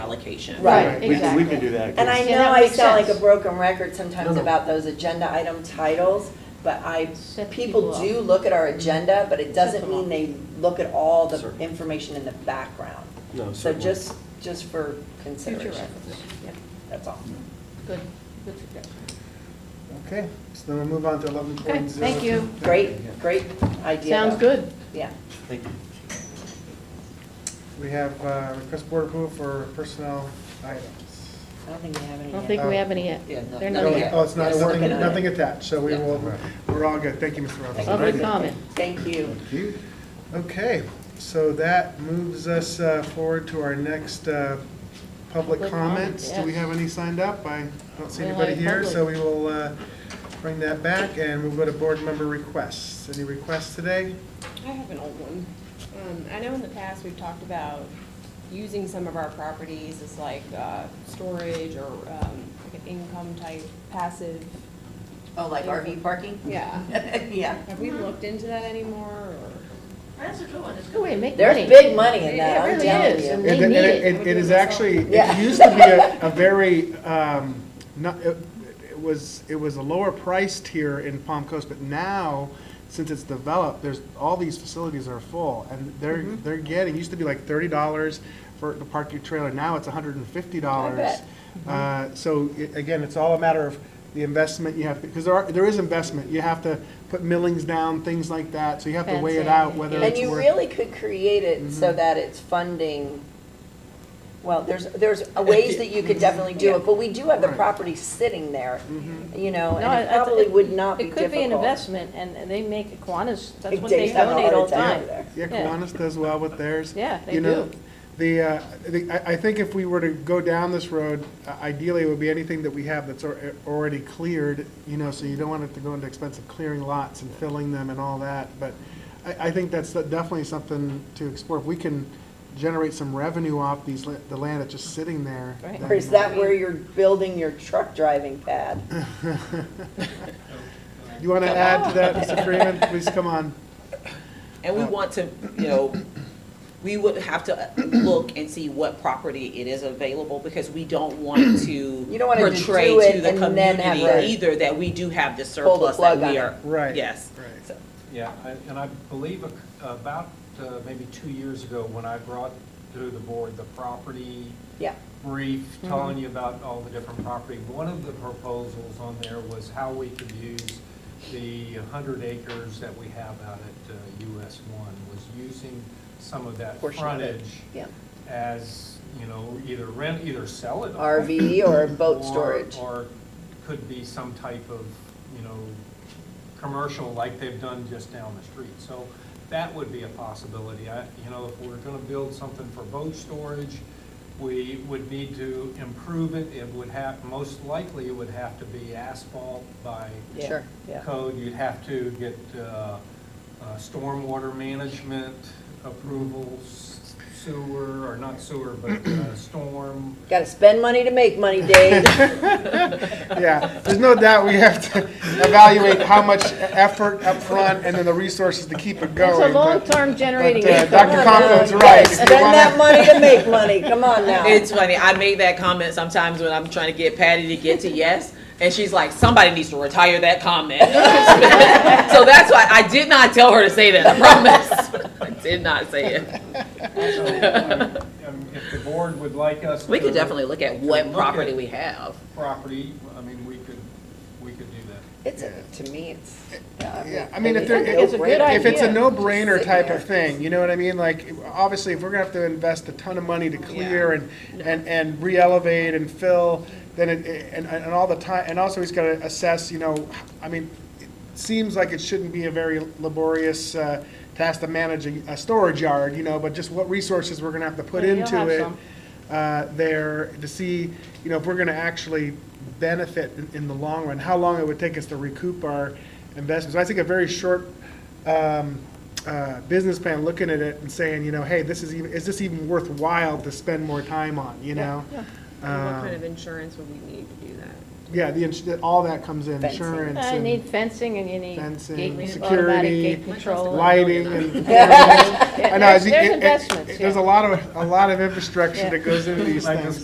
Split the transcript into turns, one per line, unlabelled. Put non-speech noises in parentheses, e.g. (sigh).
allocation.
Right,
We can- We
exactly.
can do that.
And I
Yeah,
know
that
I
makes
sound like
sense.
a broken record sometimes
No, no.
about those agenda item titles, but I,
Set
people
people up.
do look at our agenda, but it doesn't
them up.
mean they look at all the
Certainly.
information in the background.
No,
So
certainly.
just, just for
Future
consideration,
reference, yeah,
that's all.
good, good suggestion.
Okay, so then we move on to eleven
Okay,
point zero.
thank you.
Great, great idea.
Sounds
though.
good.
Yeah.
Thank you.
We have uh, request board approval for personnel items.
I don't think we have any
I
yet.
don't think we have any yet.
Yeah, no-
They're
no,
not
no,
Oh,
yet.
yeah.
Oh, it's not,
Just
we're-
looking at it.
nothing attached, so we
Yeah.
will, we're all good. Thank you, Mr. Robinson.
Public comment.
Thank you.
you. Okay, so that moves us uh, forward to our next uh, public
Public
comments. Do we
yes.
have any signed up? I don't see
We don't have
anybody here, so we
public.
will uh, bring that back and we'll go to board member requests. Any requests today?
I have an old one. Um, I know in the past, we've talked about using some of our properties as like, uh, storage or, um, like an income type passive.
Oh, like RV parking?
Yeah.
(laughs) Yeah.
Have we looked into that anymore or?
That's a good one, it's
Go away, make money.
There's big money in
It-
that,
it
I'm
really
telling
is.
you.
And They
It- it-
need it.
It it is actually, it
Yeah.
used to be a, a very, um, not, it it was, it was a lower priced here in Palm Coast, but now, since it's developed, there's, all these facilities are full, and they're, they're getting, used to be like thirty dollars for to park your trailer, now it's hundred and fifty dollars.
bet.
Uh, so, i- again, it's all a matter of the investment you have, because there are, there is investment, you have to put millings down, things like that, so you have to weigh it
Fencing,
out whether
yeah.
it's
And
worth.
you really could create it
Mm-hmm.
so that it's funding, well, there's, there's a ways that you could definitely do it, but we do have the
Right.
property sitting there, you know,
Mm-hmm. No,
and it
I- I-
probably would not be
It could be an
difficult.
investment, and they make Kiwanis, that's what
Dave's
they
having a
donate
heart
all the
attack
time.
over there.
Yeah,
Yeah.
Kiwanis does well with theirs.
Yeah, they
You know,
do.
The, uh, the- I, I think if we were to go down this road, uh, ideally it would be anything that we have that's al- uh, already cleared, you know, so you don't want it to go into expensive clearing lots and filling them and all that, but I, I think that's definitely something to explore. If we can generate some revenue off these, la- the land that's just sitting there.
Right.
then-
Or is that
Mm-hmm.
where you're building your truck driving
(clears throat)
pad?
You want to add to
(laughs)
that, Mr. Freeman? Please come on.
And we want to, you know, we would have to look and see what property it is available, because we don't want
(clears throat)
to
don't wanna just do
portray
it
to the
and then have
community
a-
either that we do have the
Pull the
surplus that
plug on
we
it.
are.
Right,
Yes.
right.
So-
Yeah, I- and I believe ac- about uh, maybe two years ago, when I brought to the board the property
Yeah,
brief,
Mm-hmm.
telling you about all the different property, one of the proposals on there was how we could use the 100 acres that we have out at uh, US 1, was using some of that
Portion of it.
frontage
yeah.
as, you know, either rent, either sell it.
RV
(coughs)
or boat
or-
storage.
Or could be some type of, you know, commercial like they've done just down the street. So that would be a possibility. I, you know, if we're gonna build something for boat storage, we would need to improve it. It would have, most likely it would have to be asphalt by
Yeah, Sure. yeah.
code. You'd have to get, uh, uh, stormwater management approvals, sewer, or not sewer, but, uh, storm.
Gotta spend money to make money,
(laughs)
Dave.
Yeah, there's no doubt we have to evaluate how much effort upfront and then the resources to keep it
It's
going.
a
but-
long-term generating.
But uh,
income.
Dr. Conklin's
Gotta
right. If
Spend
you wanna-
that money to make money, come on now.
It's funny, I make that comment sometimes when I'm trying to get Patty to get to yes, and she's like, somebody needs to retire that comment. (laughs) So that's why, I did not tell her to say that, I promise. (laughs) I did not say it.
So, um, If the board would like us to.
We could definitely look at
to
what
look
property
at
we have.
Property, I mean, we could, we could do that.
It's, a- to me, it's.
Yeah, I mean, if there,
It's a good
if it's a
idea.
no-brainer
Just
type
sitting
of thing, you know what I mean? Like, obviously, if we're gonna have to invest a ton of money to clear and, and, and re-elevate and fill, then it, and, and all the time, and also he's gotta assess, you know, I mean, it seems like it shouldn't be a very laborious, uh, task to manage a, a storage yard, you know, but just what resources we're gonna have to put
Yeah, you'll
into
have
it
some.
uh, there to see, you know, if we're going to actually benefit in, in the long run, how long it would take us to recoup our investments. I think a very short um, uh, business plan, looking at it and saying, you know, hey, this is even, is this even worthwhile to spend more time on, you know?
And What
Um,
kind of insurance would we need to do that?
Yeah, the, ins- that- all that comes in,
Fencing.
insurance
I Uh, need
and
fencing and you need
Fencing,
gate, automatic
security,
gate control.
lighting
(laughs)
and.
Yeah, There's
I know, it-
there's
it- it-
investments, yeah.
There's a lot of, a lot of infrastructure
Yeah.
that goes into these
Like this
things.